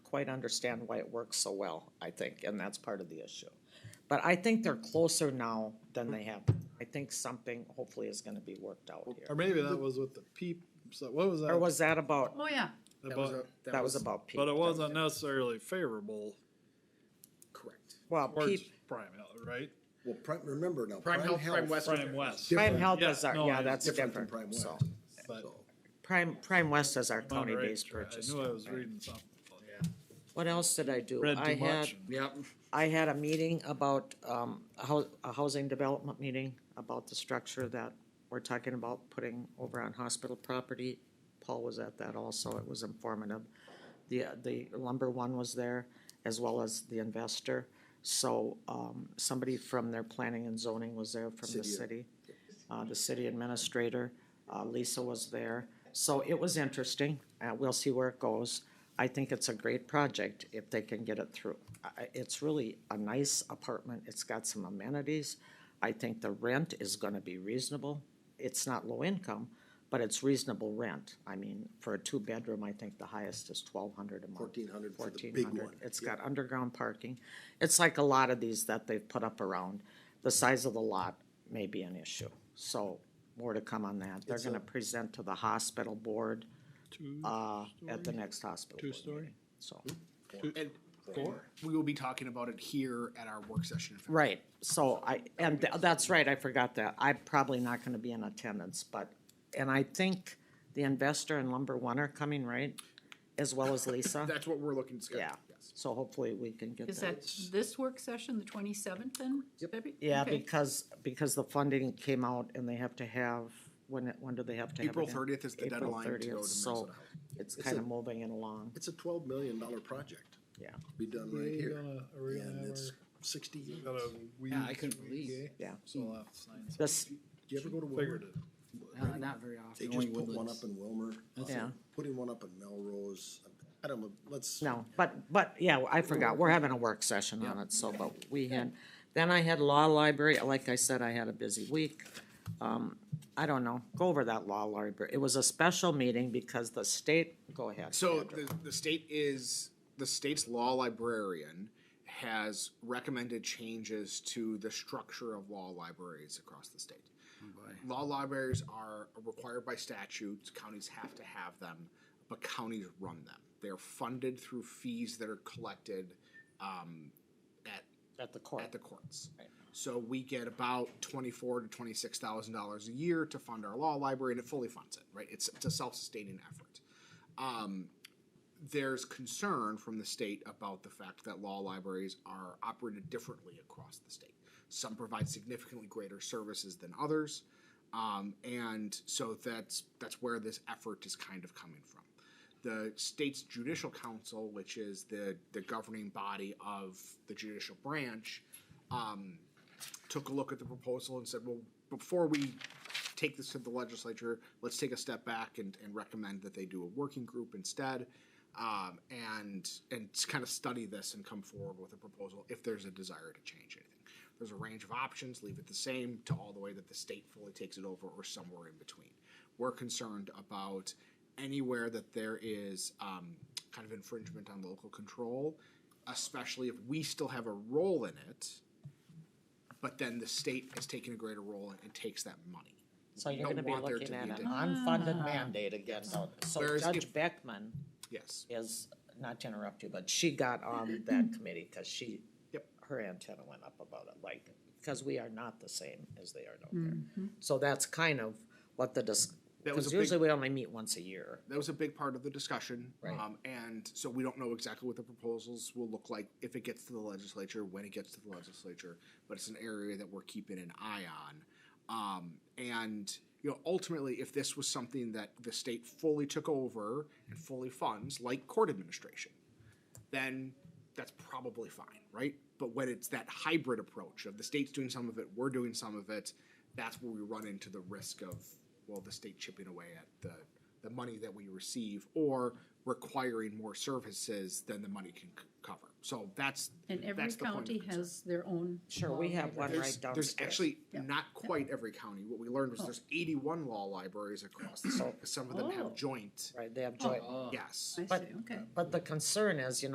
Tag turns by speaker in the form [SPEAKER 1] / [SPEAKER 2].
[SPEAKER 1] quite understand why it works so well, I think, and that's part of the issue. But I think they're closer now than they have. I think something hopefully is gonna be worked out
[SPEAKER 2] Or
[SPEAKER 1] here.
[SPEAKER 2] maybe that was with the peep, so what was that?
[SPEAKER 1] Or was that about,
[SPEAKER 3] Oh, yeah.
[SPEAKER 4] That was
[SPEAKER 2] about-
[SPEAKER 4] a-
[SPEAKER 1] that was about Pete?
[SPEAKER 2] But it wasn't necessarily favorable
[SPEAKER 4] Correct.
[SPEAKER 1] Well,
[SPEAKER 2] towards
[SPEAKER 1] Pete,
[SPEAKER 2] Prime Health, right?
[SPEAKER 4] Well, prime, remember now.
[SPEAKER 5] Prime Health, Prime West.
[SPEAKER 2] Prime West.
[SPEAKER 4] Different-
[SPEAKER 1] Prime Health
[SPEAKER 2] yeah,
[SPEAKER 1] is our,
[SPEAKER 2] no,
[SPEAKER 1] yeah,
[SPEAKER 2] it's
[SPEAKER 1] that's
[SPEAKER 4] Different than
[SPEAKER 1] different,
[SPEAKER 4] Prime West.
[SPEAKER 1] so.
[SPEAKER 2] but-
[SPEAKER 4] So,
[SPEAKER 1] Prime, Prime West is our
[SPEAKER 2] Am I right?
[SPEAKER 1] county-based purchase.
[SPEAKER 2] I knew I was
[SPEAKER 1] right.
[SPEAKER 2] reading something. but
[SPEAKER 1] What else did I do?
[SPEAKER 2] Read
[SPEAKER 1] I
[SPEAKER 2] too
[SPEAKER 1] had-
[SPEAKER 2] much.
[SPEAKER 5] Yep.
[SPEAKER 1] I had a meeting about, um, a hou- a housing development meeting about the structure that we're talking about putting over on hospital property. Paul was at that also, it was informative. The, the lumber one was there, as well as the investor. So, um, somebody from their planning and zoning was there from the
[SPEAKER 4] City.
[SPEAKER 1] city. Uh, the city administrator, uh, Lisa was there. So it was interesting, uh, we'll see where it goes. I think it's a great project if they can get it through. I- I- It's really a nice apartment, it's got some amenities. I think the rent is gonna be reasonable. It's not low income, but it's reasonable rent. I mean, for a two-bedroom, I think the highest is twelve hundred a month.
[SPEAKER 4] 1,400 for the
[SPEAKER 1] Fourteen
[SPEAKER 4] big
[SPEAKER 1] hundred.
[SPEAKER 4] one.
[SPEAKER 1] It's got underground parking. It's like a lot of these that they've put up around. The size of the lot may be an issue, so more to come on that. They're
[SPEAKER 2] It's a-
[SPEAKER 1] gonna present to the hospital board,
[SPEAKER 2] Two,
[SPEAKER 1] uh, at the next hospital. board meeting.
[SPEAKER 2] Two-story?
[SPEAKER 1] So,
[SPEAKER 2] Hmm.
[SPEAKER 5] And we will be talking about it here at our work session. in
[SPEAKER 2] Uh-huh.
[SPEAKER 5] February.
[SPEAKER 1] right, so I, and th- that's right, I forgot that. I'm probably not gonna be in attendance, but, and I think the investor and Lumber One are coming, right? As well as Lisa,
[SPEAKER 5] That's what we're looking to schedule.
[SPEAKER 1] yeah.
[SPEAKER 5] Yes.
[SPEAKER 1] So hopefully we can get
[SPEAKER 3] Is that this work session, the twenty-seventh then? Debbie?
[SPEAKER 1] Yeah,
[SPEAKER 3] Okay.
[SPEAKER 1] because, because the funding came out and they have to have, when, it- when do they have to have? it
[SPEAKER 5] April
[SPEAKER 1] in?
[SPEAKER 5] thirtieth is the
[SPEAKER 1] April
[SPEAKER 5] deadline to go to
[SPEAKER 1] 30th,
[SPEAKER 5] Minnesota
[SPEAKER 1] So
[SPEAKER 5] Health.
[SPEAKER 1] it's
[SPEAKER 4] It's
[SPEAKER 1] kind
[SPEAKER 4] a-
[SPEAKER 1] of moving it along,
[SPEAKER 4] It's a twelve million dollar project,
[SPEAKER 1] yeah,
[SPEAKER 4] be done
[SPEAKER 2] Are
[SPEAKER 4] right
[SPEAKER 2] we
[SPEAKER 4] here,
[SPEAKER 2] gonna- are we gonna
[SPEAKER 4] and
[SPEAKER 2] have
[SPEAKER 4] it's sixty years.
[SPEAKER 2] our- got a weed
[SPEAKER 6] Yeah, I couldn't believe.
[SPEAKER 2] gay?
[SPEAKER 1] yeah.
[SPEAKER 2] So I'll have to sign something.
[SPEAKER 1] This,
[SPEAKER 4] Do you ever go to
[SPEAKER 2] Figured
[SPEAKER 4] Wilmer?
[SPEAKER 2] it.
[SPEAKER 6] Not, not very often.
[SPEAKER 4] They
[SPEAKER 6] only
[SPEAKER 4] just put one
[SPEAKER 6] Woodlands.
[SPEAKER 4] up in Wilmer,
[SPEAKER 1] yeah,
[SPEAKER 4] putting one up in Melrose, I don't know, let's.
[SPEAKER 1] no, but, but, yeah, I forgot, we're having a work session on it, so, but we had, then I had law library, like I said, I had a busy week. Um, I don't know, go over that law library, it was a special meeting because the state, go ahead.
[SPEAKER 5] So
[SPEAKER 1] Andrew.
[SPEAKER 5] the, the state is, the state's law librarian has recommended changes to the structure of law libraries across the state.
[SPEAKER 1] Oh,
[SPEAKER 5] Law libraries are required by statute, counties have to have them, but counties run them. They're funded through fees that are collected, um, at
[SPEAKER 1] At the court.
[SPEAKER 5] at the courts. So we get about twenty-four to twenty-six thousand dollars a year to fund our law library, and it fully funds it. Right, it's, it's a self-sustaining effort. Um, there's concern from the state about the fact that law libraries are operated differently across the state. Some provide significantly greater services than others, um, and so that's that's where this effort is kind of coming from. The state's judicial council, which is the the governing body of the judicial branch, um, took a look at the proposal and said, well, before we take this to the legislature, let's take a step back and, and recommend that they do a working group instead. Um, and, and kind of study this and come forward with a proposal if there's a desire to change anything. There's a range of options, leave it the same to all the way that the state fully takes it over or somewhere in between. We're concerned about anywhere that there is, um, kind of infringement on local control, especially if we still have a role in it but then the state has taken a greater role and takes that money.
[SPEAKER 1] So you're
[SPEAKER 5] don't
[SPEAKER 1] gonna be
[SPEAKER 5] want there
[SPEAKER 1] looking
[SPEAKER 5] to
[SPEAKER 1] at
[SPEAKER 5] be
[SPEAKER 1] an
[SPEAKER 5] a-
[SPEAKER 1] unfunded mandate again, so, so
[SPEAKER 5] Whereas
[SPEAKER 1] Judge
[SPEAKER 5] if-
[SPEAKER 1] Beckman
[SPEAKER 5] Yes.
[SPEAKER 1] is, not to interrupt you, but she got on that committee, cause she,
[SPEAKER 5] Yep.
[SPEAKER 1] her antenna went up about it, like, cause we are not the same as they are down there. So that's kind of what the dis-
[SPEAKER 5] Mm-hmm. That was
[SPEAKER 1] cause
[SPEAKER 5] a big-
[SPEAKER 1] usually we only meet once a year.
[SPEAKER 5] That was a big part of the discussion.
[SPEAKER 1] Right.
[SPEAKER 5] Um, and so we don't know exactly what the proposals will look like if it gets to the legislature, when it gets to the legislature, but it's an area that we're keeping an eye on. Um, and, you know, ultimately, if this was something that the state fully took over and fully funds, like court administration, then that's probably fine, right? But when it's that hybrid approach of the state's doing some of it, we're doing some of it, that's where we run into the risk of, well, the state chipping away at the, the money that we receive or requiring more services than the money can c- cover. So that's,
[SPEAKER 3] And every
[SPEAKER 5] that's the point of
[SPEAKER 3] county
[SPEAKER 5] concern.
[SPEAKER 3] has their own.
[SPEAKER 1] Sure, we
[SPEAKER 3] law
[SPEAKER 1] have one
[SPEAKER 3] library.
[SPEAKER 1] right
[SPEAKER 5] There's,
[SPEAKER 1] downstairs.
[SPEAKER 5] there's actually not quite every county. What we learned was
[SPEAKER 3] Oh.
[SPEAKER 5] there's 81 law libraries across the state. 'cause Some of them
[SPEAKER 3] Oh.
[SPEAKER 5] have joint.
[SPEAKER 1] Right, they have joint,
[SPEAKER 6] Oh.
[SPEAKER 5] Yes.
[SPEAKER 3] I
[SPEAKER 1] but-
[SPEAKER 3] see, okay.
[SPEAKER 1] but the concern is, you know.